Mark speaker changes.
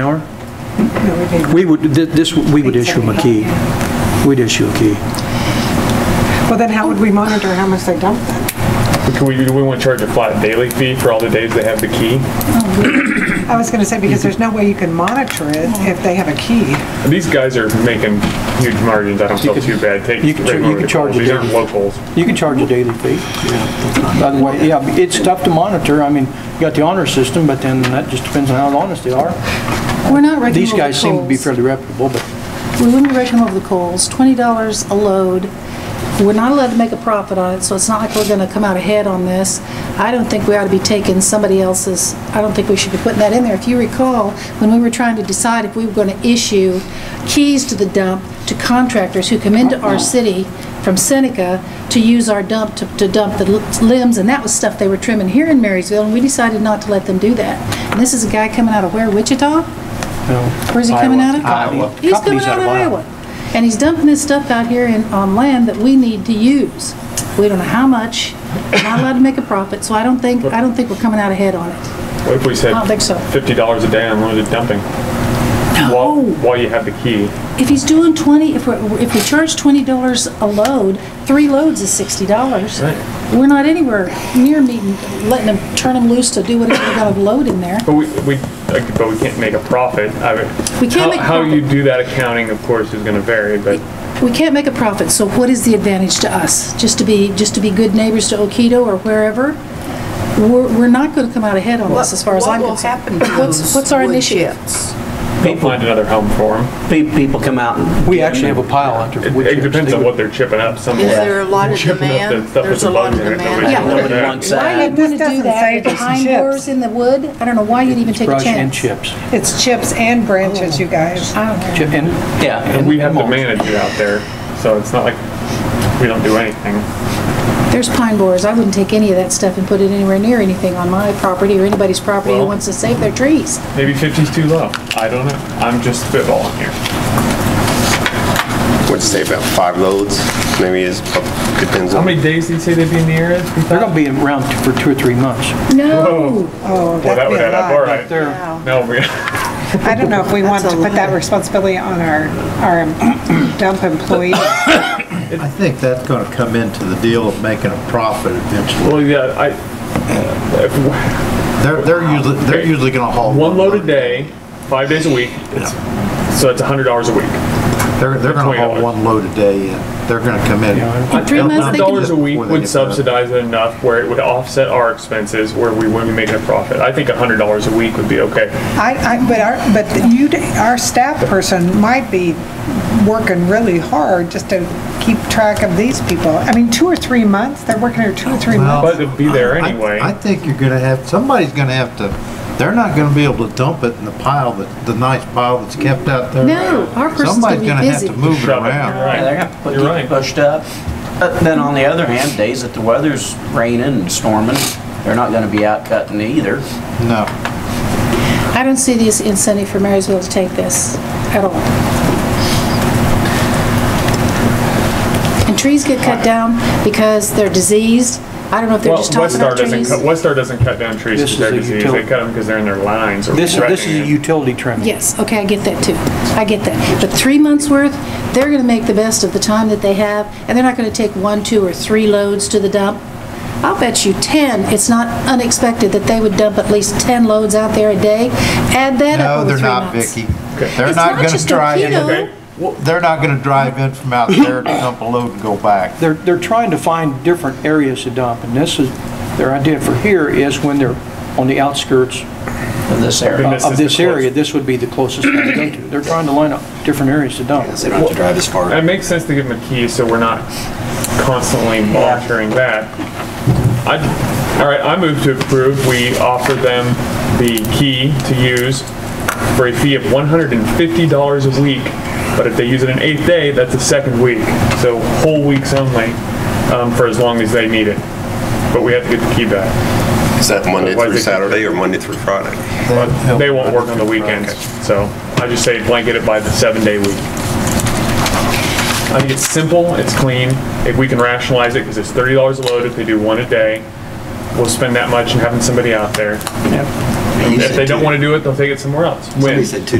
Speaker 1: hour? We would, thi- this, we would issue them a key. We'd issue a key.
Speaker 2: Well, then how would we monitor how much they dump then?
Speaker 3: Can we, do we want to charge a flat daily fee for all the days they have the key?
Speaker 2: I was going to say, because there's no way you can monitor it if they have a key.
Speaker 3: These guys are making huge margins. I don't feel
Speaker 1: could-
Speaker 3: too bad. Take
Speaker 1: you could
Speaker 3: right
Speaker 1: char- you
Speaker 3: over
Speaker 1: could
Speaker 3: the
Speaker 1: charge
Speaker 3: coals.
Speaker 1: a
Speaker 3: These aren't
Speaker 1: daily.
Speaker 3: locals.
Speaker 1: You can charge a daily fee. By the way, yeah, it's tough to monitor. I mean, you got the honor system, but then that just depends on how honest they are.
Speaker 4: We're not raking
Speaker 1: These
Speaker 4: over the
Speaker 1: guys seem to be
Speaker 4: coals.
Speaker 1: fairly reputable, but
Speaker 4: We wouldn't rake them over the coals, twenty dollars a load. We're not allowed to make a profit on it, so it's not like we're gonna come out ahead on this. I don't think we ought to be taking somebody else's, I don't think we should be putting that in there. If you recall, when we were trying to decide if we were gonna issue keys to the dump to contractors who come into our city from Seneca to use our dump, to to dump the limbs, and that was stuff they were trimming here in Marysville, and we decided not to let them do that. And this is a guy coming out of where, Wichita? Where's he coming out of?
Speaker 1: Iowa.
Speaker 4: He's coming
Speaker 1: Company's
Speaker 4: out of Iowa. And he's dumping his stuff out here in, on land that we need to use. We don't know how much, we're not allowed to make a profit, so I don't think, I don't think we're coming out ahead on it.
Speaker 3: What if we said
Speaker 4: I don't think so.
Speaker 3: fifty dollars a day on unlimited dumping? While, while you have the key,
Speaker 4: If he's doing 20, if we, if we charge $20 a load, three loads is $60. We're not anywhere near meeting, letting him, turn him loose to do whatever they got to load in there.
Speaker 3: but we, we, like, but we can't make a profit. I mean,
Speaker 4: We can't
Speaker 3: how-
Speaker 4: make a
Speaker 3: How
Speaker 4: profit.
Speaker 3: you do that accounting, of course, is going to vary, but
Speaker 4: We can't make a profit, so what is the advantage to us? Just to be, just to be good neighbors to Okito or wherever? We're, we're not gonna come out ahead on this, as far as I'm concerned.
Speaker 5: What will happen to
Speaker 4: What's-
Speaker 5: those
Speaker 4: what's our
Speaker 5: wood
Speaker 4: initiative?
Speaker 5: chips?
Speaker 3: they'll find another home for them.
Speaker 6: Pe- People come out and...
Speaker 1: we actually have a pile after.
Speaker 3: It,
Speaker 1: wood
Speaker 3: it
Speaker 1: chips.
Speaker 3: depends
Speaker 1: They
Speaker 3: on
Speaker 1: would-
Speaker 3: what they're chipping up somewhere.
Speaker 5: Is there a lot of
Speaker 3: Chipping up
Speaker 5: demand?
Speaker 3: the stuff with
Speaker 5: There's
Speaker 3: the
Speaker 5: a lot
Speaker 3: bugs
Speaker 5: of
Speaker 3: in it, nobody-
Speaker 5: demand.
Speaker 4: Yeah.
Speaker 6: Nobody
Speaker 3: Yeah.
Speaker 6: wants
Speaker 4: Why
Speaker 6: that.
Speaker 4: you'd wanna
Speaker 2: This
Speaker 4: do
Speaker 2: doesn't say
Speaker 4: that,
Speaker 2: just
Speaker 4: behind
Speaker 2: chips.
Speaker 4: doors in the wood? I don't know why you'd even take a
Speaker 1: Brush and
Speaker 4: chance.
Speaker 1: chips.
Speaker 2: It's chips and branches, you guys.
Speaker 3: Oh,
Speaker 4: I don't
Speaker 1: Chip
Speaker 4: care.
Speaker 1: and,
Speaker 6: Yeah.
Speaker 3: And we have to
Speaker 1: mulch.
Speaker 3: manage it out there, so it's not like we don't do anything.
Speaker 4: There's pine borers, I wouldn't take any of that stuff and put it anywhere near anything on my property or anybody's property who
Speaker 3: Well-
Speaker 4: wants to save their trees.
Speaker 3: Maybe 50's too low. I don't know. I'm just spitballing here.
Speaker 7: What'd you say, about five loads? Maybe it's, depends
Speaker 3: How
Speaker 7: on.
Speaker 3: many days did you say they'd be in the area?
Speaker 1: They're gonna be around for two or three months.
Speaker 4: No,
Speaker 2: Oh,
Speaker 3: Well, that
Speaker 2: that'd be
Speaker 3: would
Speaker 2: a
Speaker 3: add up, all
Speaker 2: lot.
Speaker 3: right.
Speaker 1: They're-
Speaker 3: No, we,
Speaker 2: I don't know if we want to
Speaker 5: That's a
Speaker 2: put that
Speaker 5: lot.
Speaker 2: responsibility on our, our dump employee.
Speaker 8: I think that's gonna come into the deal of making a profit eventually.
Speaker 3: well, yeah, I, if-
Speaker 8: They're, they're usually, they're usually gonna haul.
Speaker 3: one load a day, five days a week, it's- so that's hundred dollars a week.
Speaker 8: They're, they're
Speaker 3: $20.
Speaker 8: gonna haul one load a day and they're gonna come in.
Speaker 4: in three
Speaker 8: They'll-
Speaker 4: months,
Speaker 3: Hundred
Speaker 4: they
Speaker 8: they'll-
Speaker 4: can,
Speaker 3: dollars a week
Speaker 8: before they
Speaker 3: would
Speaker 8: get
Speaker 3: subsidize it enough where it would offset our expenses, where we wouldn't be making a profit. I think hundred dollars a week would be okay.
Speaker 2: I, I, but our, but you, our staff person might be working really hard just to keep track of these people. I mean, two or three months, they're working here two or three
Speaker 8: Well,
Speaker 2: months.
Speaker 3: But it'd be there
Speaker 8: I-
Speaker 3: anyway.
Speaker 8: I think you're gonna have, somebody's gonna have to, they're not gonna be able to dump it in the pile that, the nice pile that's kept out there.
Speaker 4: No, our person's
Speaker 8: Somebody's
Speaker 4: gonna be
Speaker 8: have
Speaker 4: busy.
Speaker 8: to Move it
Speaker 3: Shove it.
Speaker 8: around.
Speaker 3: Right.
Speaker 6: Yeah, They're gonna put-
Speaker 3: You're
Speaker 6: get
Speaker 3: right.
Speaker 6: pushed up. But then on the other hand, days that the weather's raining and storming, they're not gonna be out cutting either.
Speaker 8: No.
Speaker 4: I don't see this incentive for Marysville to take this at all. And trees get cut down because they're diseased. I don't know if they're
Speaker 3: Well,
Speaker 4: just talking
Speaker 3: Westar
Speaker 4: about
Speaker 3: doesn't,
Speaker 4: trees.
Speaker 3: cut- Westar doesn't cut down trees
Speaker 1: This
Speaker 3: because they're
Speaker 1: is a
Speaker 3: diseased. They
Speaker 1: utility.
Speaker 3: cut them because they're in their lines or
Speaker 1: This, this is
Speaker 3: threatening
Speaker 1: a
Speaker 3: it.
Speaker 1: utility trimming.
Speaker 4: Yes, okay, I get that too. I get that. But three months' worth, they're going to make the best of the time that they have, and they're not going to take one, two, or three loads to the dump. I'll bet you 10, it's not unexpected that they would dump at least 10 loads out there a day. Add that up
Speaker 8: No,
Speaker 4: over
Speaker 8: they're
Speaker 4: three
Speaker 8: not,
Speaker 4: months.
Speaker 8: Vicky. They're
Speaker 4: It's
Speaker 8: not
Speaker 4: not
Speaker 8: gonna
Speaker 4: just a
Speaker 8: drive. in-
Speaker 4: kilo.
Speaker 8: They're not gonna drive in from out there to dump a load and go back.
Speaker 1: They're, they're trying to find different areas to dump, and this is, their idea for here is when they're on the outskirts
Speaker 6: in This
Speaker 3: Then
Speaker 6: area.
Speaker 3: this
Speaker 1: of
Speaker 3: is the
Speaker 1: this area,
Speaker 3: closest.
Speaker 1: this would be the closest one to go to. They're trying to line up different areas to dump.
Speaker 6: They don't have to drive as far.
Speaker 3: It makes sense to give them a key so we're not constantly monitoring that. I, all right, I move to approve. We offer them the key to use for a fee of $150 a week. But if they use it an eighth day, that's a second week. So whole weeks only, um, for as long as they need it. But we have to get the key back.
Speaker 7: Is that Monday
Speaker 3: Why is
Speaker 7: through
Speaker 3: it-
Speaker 7: Saturday or Monday through Friday?
Speaker 3: But they won't work on the weekends. So I just say blanket it by the seven-day week. I think it's simple, it's clean. If we can rationalize it, because it's $30 a load if they do one a day, we'll spend that much in having somebody out there.
Speaker 9: If they don't want to do it, they'll take it somewhere else. When-
Speaker 3: Somebody said two